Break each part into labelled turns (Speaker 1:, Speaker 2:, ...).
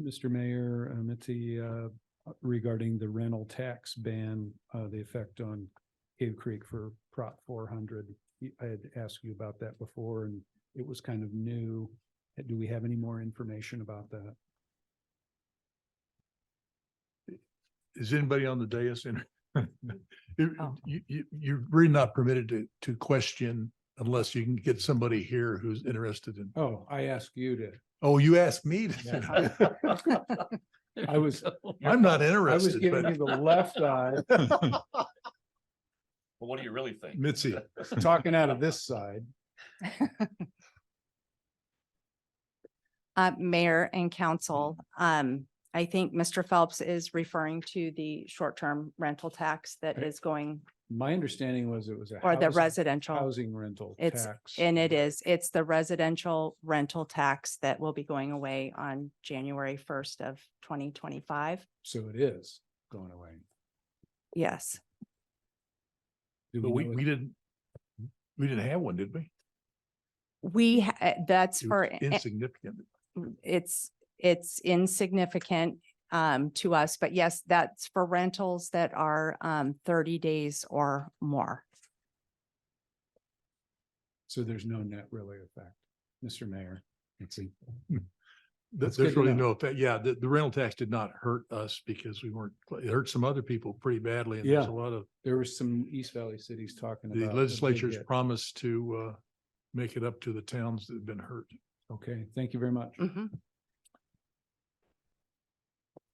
Speaker 1: Mr. Mayor, uh, Mitzi, uh, regarding the rental tax ban, uh, the effect on Cave Creek for Prop four hundred. I had asked you about that before and it was kind of new. Uh, Do we have any more information about that?
Speaker 2: Is anybody on the dais in? You,
Speaker 3: Oh.
Speaker 2: you, you- you're really not permitted to, to question unless you can get somebody here who's interested in,
Speaker 1: Oh, I asked you to.
Speaker 2: oh, you asked me. to-
Speaker 1: I was,
Speaker 2: I'm not
Speaker 1: I was
Speaker 2: interested,
Speaker 1: giving you
Speaker 2: but
Speaker 1: the left eye,
Speaker 4: Well, what do you really think?
Speaker 2: Mitzi,
Speaker 1: talking out of this side.
Speaker 3: Uh, Mayor and Council, um, I think Mr. Phelps is referring to the short-term rental tax that
Speaker 1: Okay.
Speaker 3: is going,
Speaker 1: My understanding was it was a.
Speaker 3: or the
Speaker 1: housing-
Speaker 3: residential.
Speaker 1: Housing rental
Speaker 3: It's-
Speaker 1: tax.
Speaker 3: And it is, it's the residential rental tax that will be going away on January first of twenty twenty-five.
Speaker 1: So it is going away.
Speaker 3: Yes,
Speaker 1: Do
Speaker 2: but we,
Speaker 1: know
Speaker 2: we didn't, we didn't have one, did we?
Speaker 3: we, ha- uh, that's
Speaker 2: It
Speaker 3: for,
Speaker 2: was Insignificant.
Speaker 3: it's, it's insignificant um, to us, but yes, that's for rentals that are um, thirty days or more.
Speaker 1: So there's no net really effect, Mr. Mayor. Let's see.
Speaker 2: Th-
Speaker 1: That's good
Speaker 2: There's
Speaker 1: to
Speaker 2: really
Speaker 1: know.
Speaker 2: no effect. Yeah, the, the rental tax did not hurt us because we weren't, it hurt some other people pretty badly. And there's
Speaker 1: Yeah. Uh,
Speaker 2: a lot of,
Speaker 1: There was some East Valley cities talking about.
Speaker 2: the
Speaker 1: that they
Speaker 2: legislature's
Speaker 1: get-
Speaker 2: promise to, uh, make it up to the towns that have been hurt.
Speaker 1: Okay, thank you very much.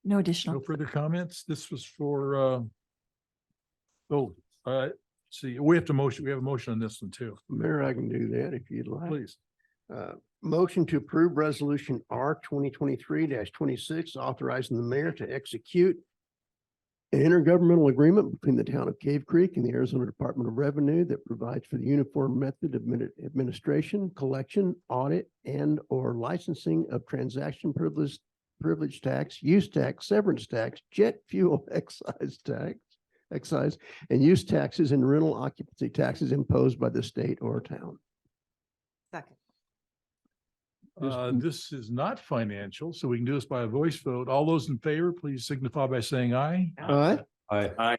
Speaker 5: No
Speaker 2: No
Speaker 5: additional.
Speaker 2: further comments. This was for, uh, oh, uh, see, we have to motion, we have a motion on this one too,
Speaker 6: Mayor, I can do that if you'd like.
Speaker 2: please.
Speaker 6: Uh, Motion to approve resolution R twenty twenty-three twenty-six, authorizing the mayor to execute an intergovernmental agreement between the town of Cave Creek and the Arizona Department of Revenue that provides for the uniform method of admini- administration, collection, audit, and or licensing of transaction privilege, privilege tax, use tax, severance tax, jet fuel excise tax, excise, and use taxes and rental occupancy taxes imposed by the state or town.
Speaker 3: Second.
Speaker 1: There's-
Speaker 2: Uh, this is not financial, so we can do this by a voice vote. All those in favor, please signify by saying aye.
Speaker 6: All right?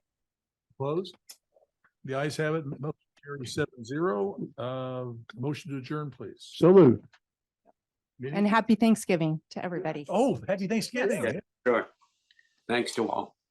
Speaker 2: Opposed? The ayes have it, motion carries seven zero. Uh, motion to adjourn, please.
Speaker 6: So moved.
Speaker 3: And happy Thanksgiving to everybody.
Speaker 2: Oh, happy Oh, Thanksgiving.
Speaker 7: Sure. Thanks to all.